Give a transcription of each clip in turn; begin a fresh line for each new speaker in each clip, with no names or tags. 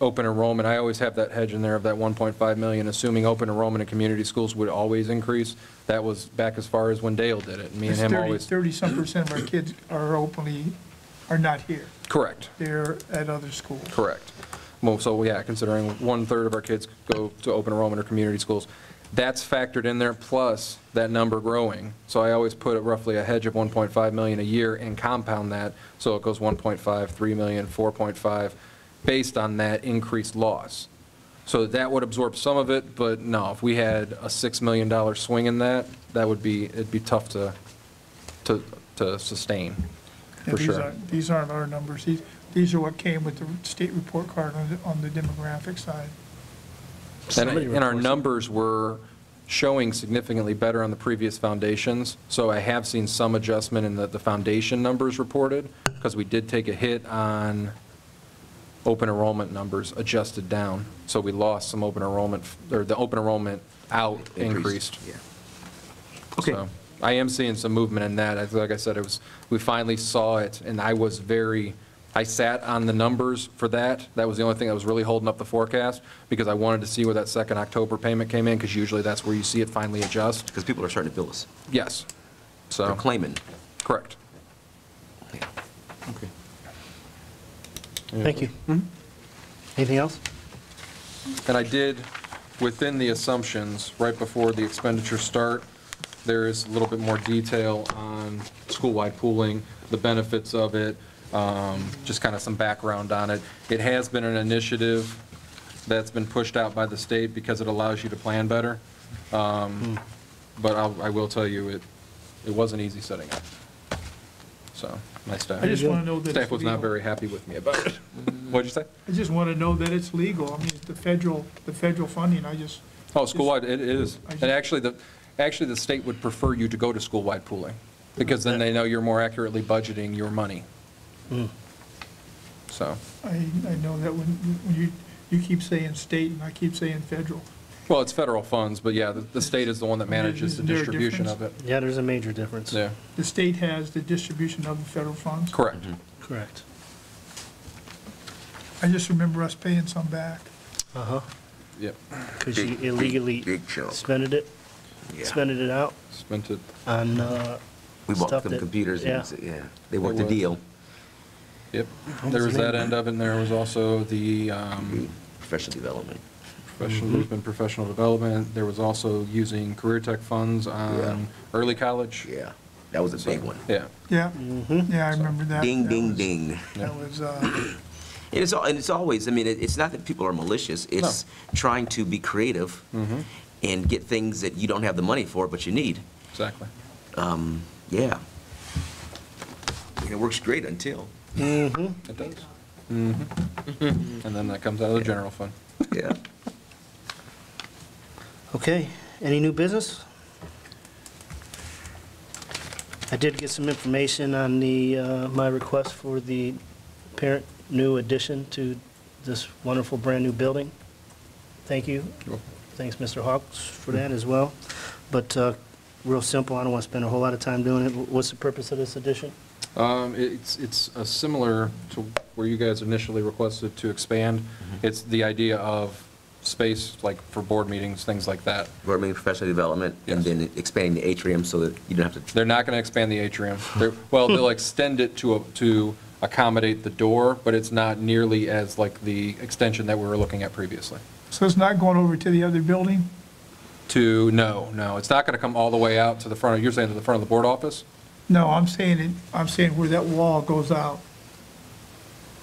open enrollment, I always have that hedge in there of that 1.5 million, assuming open enrollment in community schools would always increase. That was back as far as when Dale did it, and me and
It's
him
30,
always.
30-some percent of our kids are openly, are not here.
Correct,
They're at other schools.
correct. Well, so, yeah, considering one-third of our kids go to open enrollment or community schools, that's factored in there, plus that number growing. So I always put roughly a hedge of 1.5 million a year and compound that, so it goes 1.5, 3 million, 4.5, based on that increased loss. So that would absorb some of it, but no, if we had a $6 million swing in that, that would be, it'd be tough to, to, to sustain,
And
for
these
sure.
aren't, these aren't our numbers. These, these are what came with the state report card on the, on the demographic side.
And
Somebody
and our
reports it.
numbers were showing significantly better on the previous foundations, so I have seen some adjustment in the, the foundation numbers reported, because we did take a hit on open enrollment numbers adjusted down, so we lost some open enrollment, or the open enrollment out increased.
Yeah. Okay,
So I am seeing some movement in that. I- Like I said, it was, we finally saw it, and I was very, I sat on the numbers for that. That was the only thing that was really holding up the forecast, because I wanted to see where that second October payment came in, because usually that's where you see it finally adjust.
because people are starting to bill us.
Yes.
They're
So,
claiming.
correct.
Yeah. Okay.
Thank you. Anything else?
And I did, within the assumptions, right before the expenditures start, there is a little bit more detail on school-wide pooling, the benefits of it, um, just kind of some background on it. It has been an initiative that's been pushed out by the state because it allows you to plan better. Um, But I'll- I will tell you, it, it wasn't easy setting up. So, my staff,
I just want to know that
staff
it's
was not
legal.
very happy with me about it. What'd you say?
I just want to know that it's legal. I mean, it's the federal, the federal funding, I just,
Oh, school-wide, it is.
I
And
just-
actually, the, actually, the state would prefer you to go to school-wide pooling, because then they know you're more accurately budgeting your money. So,
I, I know that when, when you, you keep saying state and I keep saying federal.
well, it's federal funds, but yeah, the, the state is the one that manages the
Isn't there a
distribution of it.
difference?
Yeah, there's a major difference.
Yeah,
The state has the distribution of the federal funds.
correct.
Mm-hmm.
Correct.
I just remember us paying some back.
Uh-huh,
Yep,
because you
Big- big-
illegally
big chunk.
spended it, spended it out
spent it,
on, uh,
We
stuff
bought them
that-
computers, and,
yeah.
yeah, they worked the
was.
deal.
yep. There was that end of it, and there was also the, um,
Professional development.
professional, there's been professional development. There was also using career tech funds on early college.
Yeah, that was a big one.
Yeah,
Yeah,
Mm-hmm.
yeah, I remember that.
Ding,
That
ding,
was-
ding.
That was, uh,
And it's, al- and it's always, I mean, it- it's not that people are malicious, it's trying to be creative
Mm-hmm.
and get things that you don't have the money for, but you need.
exactly.
Um, Yeah. And it works great until,
mhm.
It does. And then that comes out of the general fund.
yeah.
Okay, any new business? I did get some information on the, uh, my request for the parent new addition to this wonderful brand-new building. Thank you. Thanks, Mr. Hawks, for that as well. But uh, real simple, I don't want to spend a whole lot of time doing it. What's the purpose of this addition?
Um, It's, it's uh, similar to where you guys initially requested to expand. It's the idea of space, like for board meetings, things like that.
Or maybe professional development, and
Yes.
then expanding the atrium so that you don't have to,
They're not going to expand the atrium. They're- Well, they'll extend it to, a- to accommodate the door, but it's not nearly as like the extension that we were looking at previously.
so it's not going over to the other building?
To, no, no, it's not going to come all the way out to the front, of you're saying to the front of the board office?
No, I'm saying it, I'm saying where that wall goes out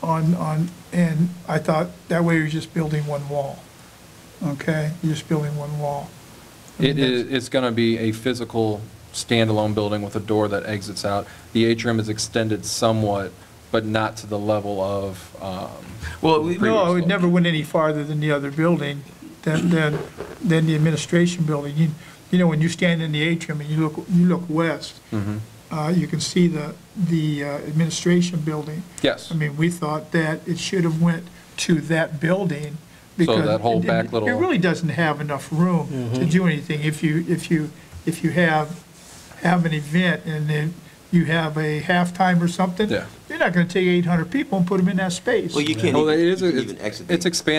on, on, and I thought that way you're just building one wall. Okay, you're just building one wall.
It is, it's going to be a physical standalone building with a door that exits out. The atrium is extended somewhat, but not to the level of, um,
well, we- we-
No, it never went any farther than the other building, than, than, than the administration building. You, you know, when you stand in the atrium and you look, you look west,
Mm-hmm.
uh, you can see the, the uh, administration building.
yes.
I mean, we thought that it should have went to that building. because
that whole back
it- It
little- Mm-hmm.
really doesn't have enough room to do anything. If you, if you, if you have, have an event and then you have a halftime or something.
Yeah.
You're not gonna take 800 people and put them in that space.
Well, you can't
Well, it
even, you
is,
can't even
it's
exit. the-
it's expanding